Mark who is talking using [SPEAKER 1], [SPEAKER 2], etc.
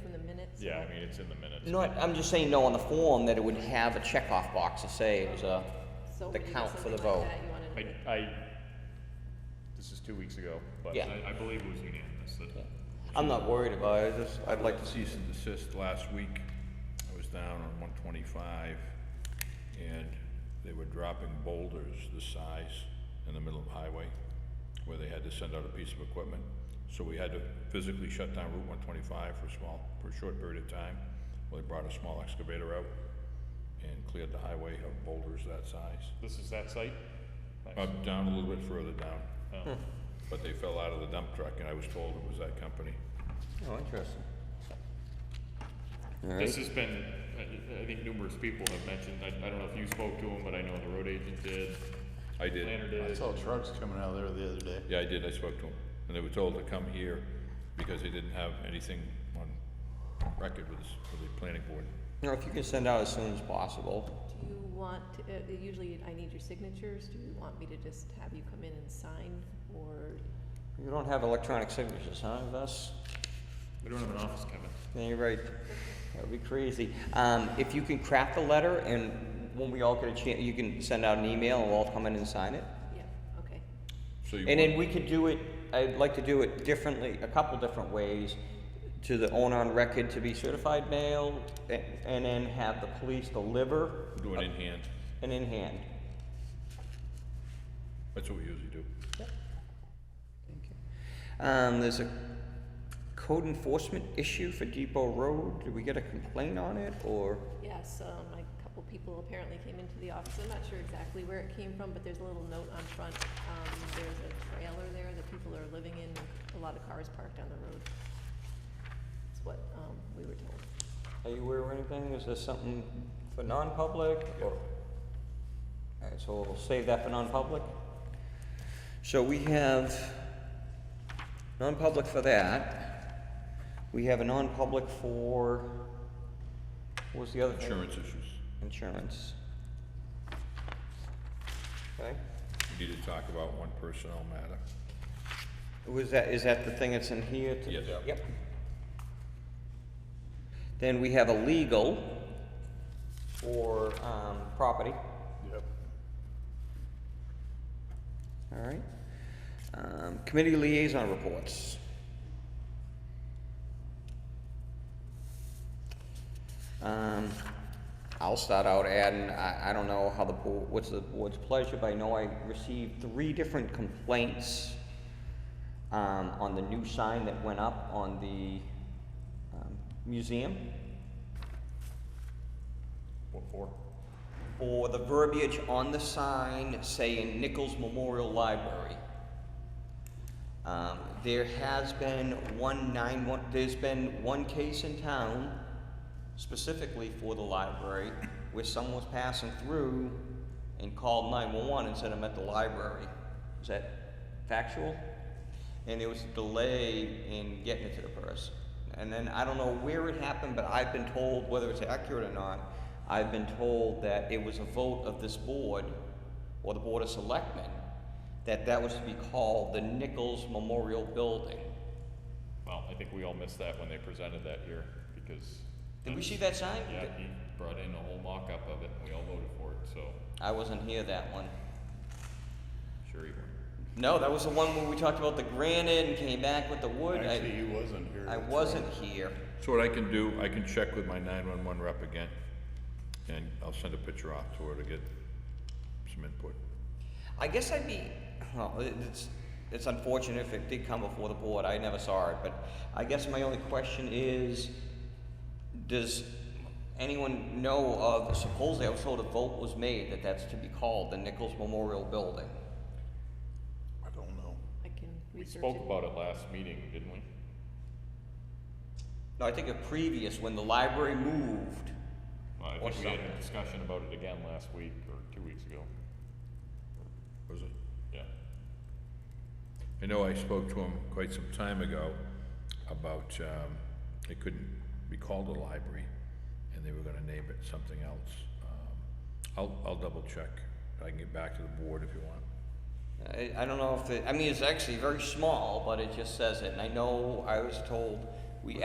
[SPEAKER 1] from the minutes?
[SPEAKER 2] Yeah, I mean, it's in the minutes.
[SPEAKER 3] No, I- I'm just saying, no, on the form, that it would have a checkoff box to say it was a,
[SPEAKER 1] So
[SPEAKER 3] the
[SPEAKER 1] we did
[SPEAKER 3] count for the
[SPEAKER 1] something like
[SPEAKER 3] vote.
[SPEAKER 1] that, you wanted-
[SPEAKER 2] I, I, this is two weeks ago, but
[SPEAKER 3] Yeah.
[SPEAKER 2] I, I believe it was unanimous. that-
[SPEAKER 3] I'm not worried about it, I just, I'd
[SPEAKER 4] I'd
[SPEAKER 3] like
[SPEAKER 4] like to cease and desist last week. I was down on one twenty-five and they were dropping boulders this size in the middle of the highway where they had to send out a piece of equipment. So we had to physically shut down Route one twenty-five for a small, for a short period of time. Well, they brought a small excavator out and cleared the highway of boulders that size.
[SPEAKER 2] This is that site? Nice.
[SPEAKER 4] Up, down, a little bit further down.
[SPEAKER 2] Oh.
[SPEAKER 4] But they fell out of the dump truck and I was told it was that company.
[SPEAKER 3] Oh, interesting.
[SPEAKER 2] This has been, I, I think numerous people have mentioned, I, I don't know if you spoke to him, but I know the road agent did,
[SPEAKER 4] I did.
[SPEAKER 2] planner
[SPEAKER 5] I
[SPEAKER 2] did.
[SPEAKER 5] saw trucks coming out of there the other day.
[SPEAKER 4] Yeah, I did, I spoke to them, and they were told to come here because they didn't have anything on record with, this- with the planning board.
[SPEAKER 3] You know, if you can send out as soon as possible,
[SPEAKER 1] Do you want, to- uh, usually I need your signatures, do you want me to just have you come in and sign, or?
[SPEAKER 3] you don't have electronic signatures, huh, Gus?
[SPEAKER 2] We don't have an office, Kevin.
[SPEAKER 3] Yeah, you're right. That would be crazy. Um, if you can craft a letter and when we all get a chance, you can send out an email and we'll all come in and sign it.
[SPEAKER 1] Yeah, okay.
[SPEAKER 4] So you
[SPEAKER 3] And then
[SPEAKER 4] want,
[SPEAKER 3] we could do it, I'd like to do it differently, a couple different ways. To the owner on record to be certified mail a- and then have the police deliver
[SPEAKER 4] do it in hand,
[SPEAKER 3] and in hand.
[SPEAKER 4] that's what we usually do.
[SPEAKER 3] Um, there's a code enforcement issue for Depot Road. Did we get a complaint on it or?
[SPEAKER 1] Yes, um, a couple people apparently came into the office, I'm not sure exactly where it came from, but there's a little note on front. Um, there's a trailer there that people are living in, a lot of cars parked on the road. That's what, um, we were told.
[SPEAKER 3] Are you aware of anything? Is there something for non-public or? Alright, so we'll save that for non-public. So we have non-public for that. We have a non-public for, what was the other thing?
[SPEAKER 4] Insurance issues,
[SPEAKER 3] Insurance. Okay.
[SPEAKER 4] we need to talk about one personnel matter.
[SPEAKER 3] Was that, is that the thing that's in here? to-
[SPEAKER 4] Yes.
[SPEAKER 3] Yep. Then we have a legal for, um, property,
[SPEAKER 5] Yep.
[SPEAKER 3] all right? Um, committee liaison reports. Um, I'll start out adding, I, I don't know how the board, what's the board's pleasure, but I know I received three different complaints um, on the new sign that went up on the um, museum.
[SPEAKER 2] What for?
[SPEAKER 3] for the verbiage on the sign saying Nichols Memorial Library. Um, there has been one nine one, there's been one case in town specifically for the library where someone was passing through and called nine one one and said, I'm at the library. Is that factual? And there was a delay in getting it to the person. And then I don't know where it happened, but I've been told, whether it's accurate or not, I've been told that it was a vote of this board or the Board of Selectmen that that was to be called the Nichols Memorial Building.
[SPEAKER 2] Well, I think we all missed that when they presented that here, because.
[SPEAKER 3] Did we see that sign?
[SPEAKER 2] Yeah, he brought in a whole mock-up of it, and we all voted for it, so,
[SPEAKER 3] I wasn't here that one.
[SPEAKER 2] sure he won.
[SPEAKER 3] No, that was the one where we talked about the granite and came back with the wood.
[SPEAKER 5] Actually,
[SPEAKER 3] I,
[SPEAKER 5] he wasn't here.
[SPEAKER 3] I
[SPEAKER 5] that's
[SPEAKER 3] wasn't here.
[SPEAKER 4] So what I can do, I can check with my nine-one-one rep again, and I'll send a picture off to her to get some input.
[SPEAKER 3] I guess I'd be, well, it- it's, it's unfortunate if it did come before the board, I never saw it, but I guess my only question is, does anyone know of, supposedly I was told a vote was made that that's to be called the Nichols Memorial Building?
[SPEAKER 5] right. I don't know.
[SPEAKER 1] I can
[SPEAKER 2] We
[SPEAKER 1] research it.
[SPEAKER 2] spoke about it last meeting, didn't we?
[SPEAKER 3] No, I think a previous, when the library moved,
[SPEAKER 2] Well, I
[SPEAKER 3] Or
[SPEAKER 2] think we had
[SPEAKER 3] something.
[SPEAKER 2] a discussion about it again last week, or two weeks ago,
[SPEAKER 4] Was it?
[SPEAKER 2] yeah.
[SPEAKER 4] I know I spoke to him quite some time ago about, um, it couldn't be called a library, and they were gonna name it something else. Um, I'll, I'll double check, I can get back to the board if you want.
[SPEAKER 3] I, I don't know if it, I mean, it's actually very small, but it just says it, and I know I was told